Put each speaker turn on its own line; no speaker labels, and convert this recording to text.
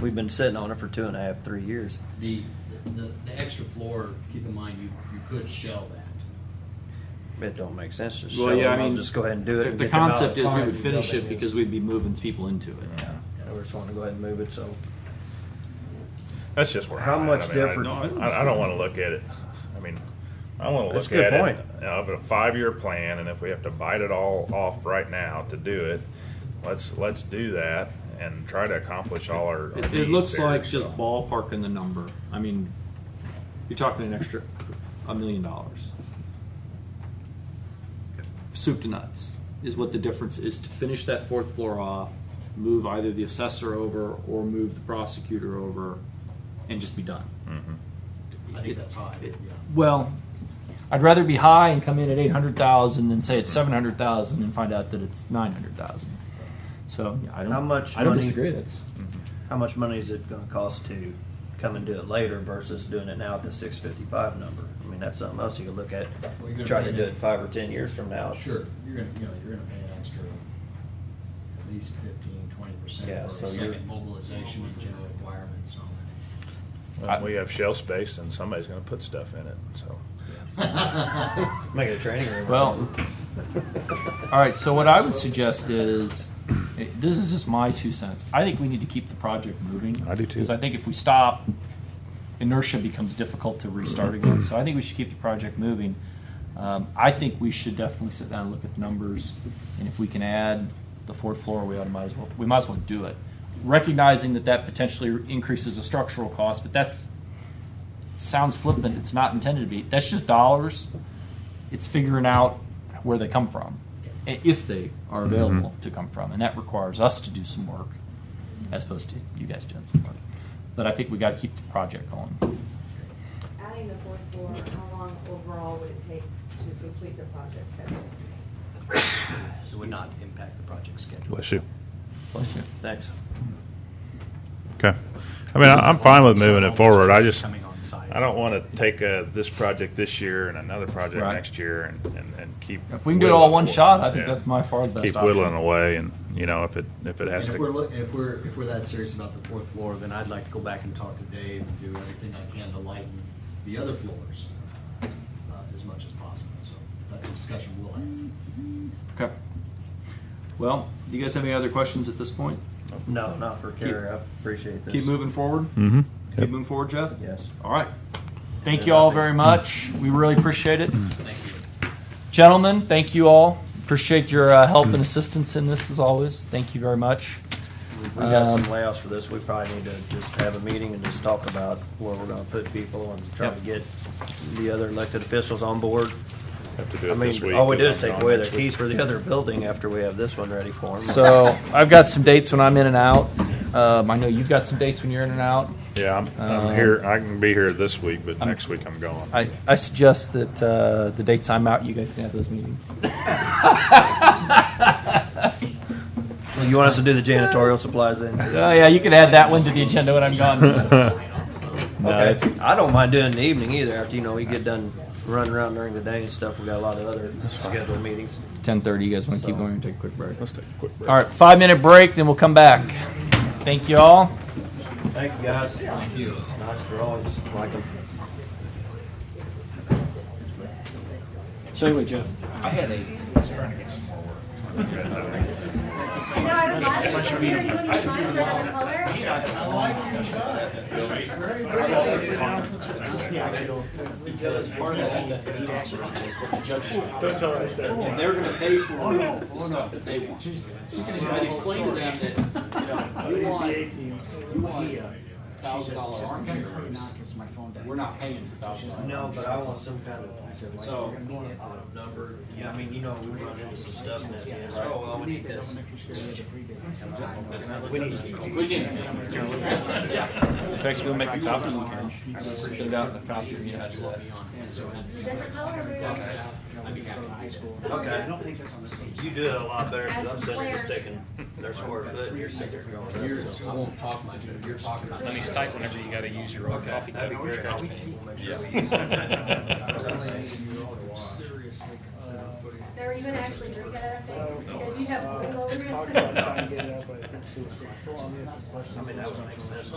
We've been sitting on it for two and a half, three years.
The, the, the extra floor, keep in mind, you, you could shell that.
It don't make sense to
Well,
sell
yeah,
them.
I mean,
I'll just go ahead and do it.
the-
and
The
get them out.
concept is we
Fine,
would finish it
building is-
because we'd be moving people into it.
Yeah.
We're just wanting to go ahead and move it, so.
That's just where.
How
I'm at.
much
I mean, I
difference-
don't- I, I don't wanna look at it, I mean, I wanna
That's
look
a good
at it,
point.
of a five-year plan, and if we have to bite it all off right now to do it, let's, let's do that and try to accomplish all our. our
It, it
needs
looks
there,
like
so.
just ballparking the number. I mean, you're talking an extra a million dollars. Soup to nuts is what the difference is to finish that fourth floor off, move either the assessor over or move the prosecutor over, and just be done.
Mhm.
I think that's high, yeah.
Well, I'd rather be high and come in at eight hundred thousand than say it's seven hundred thousand and find out that it's nine hundred thousand. So yeah, I don't.
How much
I don't
money-
disagree. That's
Mm-hmm.
How much money is it gonna cost to come and do it later versus doing it now at the six fifty-five number? I mean, that's something else you could look at.
Well, you're gonna
Try
pay
to do
that-
it five or ten years from now. It's-
Sure, you're gonna, you know, you're gonna pay an extra, at least fifteen, twenty percent
Yeah,
for
so you're-
second mobilization and general requirements and all
Well, We have shelf space and somebody's gonna put stuff in it, so.
that.
Make it a training room. or
Well,
something.
All right, so what I would suggest is, eh, this is just my two cents. I think we need to keep the project moving.
I do too.
Because I think if we stop, inertia becomes difficult to restart again. So I think we should keep the project moving. Um, I think we should definitely sit down and look at the numbers, and if we can add the fourth floor, we ought to might as well, we might as well do it. Recognizing that that potentially increases the structural cost, but that's, sounds flippant, it's not intended to be. That's just dollars. It's figuring out where they come from, i- if they are
Mm-hmm.
available to come from, and that requires us to do some work, as opposed to you guys doing some work. But I think we got to keep the project going.
Adding the fourth floor, how long overall would it take to complete the project schedule?
It would not impact the project schedule.
Bless you.
Thanks.
Okay. I mean, I- I'm fine with moving it forward. I just,
Coming on site.
I don't want to take uh this project this year and another project
Right.
next year and, and, and keep.
If we can do it all
whittling
one
away.
shot, I think
Yeah.
that's my far the best
Keep
option.
whittling away and, you know, if it, if it has
And if we're,
to.
look- if we're, if we're that serious about the fourth floor, then I'd like to go back and talk to Dave and do everything I can to lighten the other floors uh, as much as possible. So that's a discussion we'll have.
Okay. Well, do you guys have any other questions at this point?
No, not for Carrie. I appreciate this.
Keep moving forward.
Mm-hmm.
Keep moving forward, Jeff.
Yes.
All right. Thank you all very much. We really appreciate it.
Thank you.
Gentlemen, thank you all. Appreciate your uh, help and assistance in this as always. Thank you very much.
We've got some
Um,
layouts for this. We probably need to just have a meeting and just talk about where we're gonna put people and try
Yep.
to get the other elected officials on board.
Have to do
I
it this
mean,
week.
all we do is
'cause I'm
take
gone
away their
next week.
keys for the other building after we have this one ready for them.
So I've got some dates when I'm in and out. Um, I know you've got some dates when you're in and out.
Yeah, I'm,
Um,
I'm here. I can be here this week, but
I'm-
next week I'm gone.
I, I suggest that uh, the dates I'm out, you guys can have those meetings.
You want us to do the janitorial supplies then?
Oh yeah, you could add that one to the agenda when I'm gone. No, it's-
Okay. I don't mind doing it in the evening either. After you know we get done running around during the day and stuff, we got a lot of other scheduled meetings.
Ten thirty. You guys want to keep
So-
going and take a quick break?
Let's take a quick break.
All right, five minute break, then we'll come back. Thank you all.
Thank you guys. Thank you. Nice drawings. Like 'em.
So anyway, Jeff.
I know, I was laughing at the computer, you wouldn't smile for another color.
and they're gonna pay for the stuff that they want. And I explained to them that, you know, you want, you want a thousand dollar armchair, we're not paying for thousand dollars.
No, but I want some kind of, so, number, yeah, I mean, you know, we run into some stuff and at the end, oh, well, we need this.
We didn't.
fact, you will make a copy, we can print it out and a copy if you had to.
I
Okay.
don't think that's on the stage.
You do it a lot better,
Add
because I'm
some
sitting here
flair.
sticking their square foot, and you're sitting there going.
You're, I won't talk much, but you're talking about.
Let me type whenever you gotta use your own
Okay,
coffee cup
that'd
for
be
your
very
scratch
helpful.
pad.
We'll make sure we use that.
Seriously consider putting.
Now, Are you gonna actually drink out of that thing? Because
Uh,
you have blue over
Talked
it.
about trying to get it up, but I couldn't see it.
I mean, that would make sense.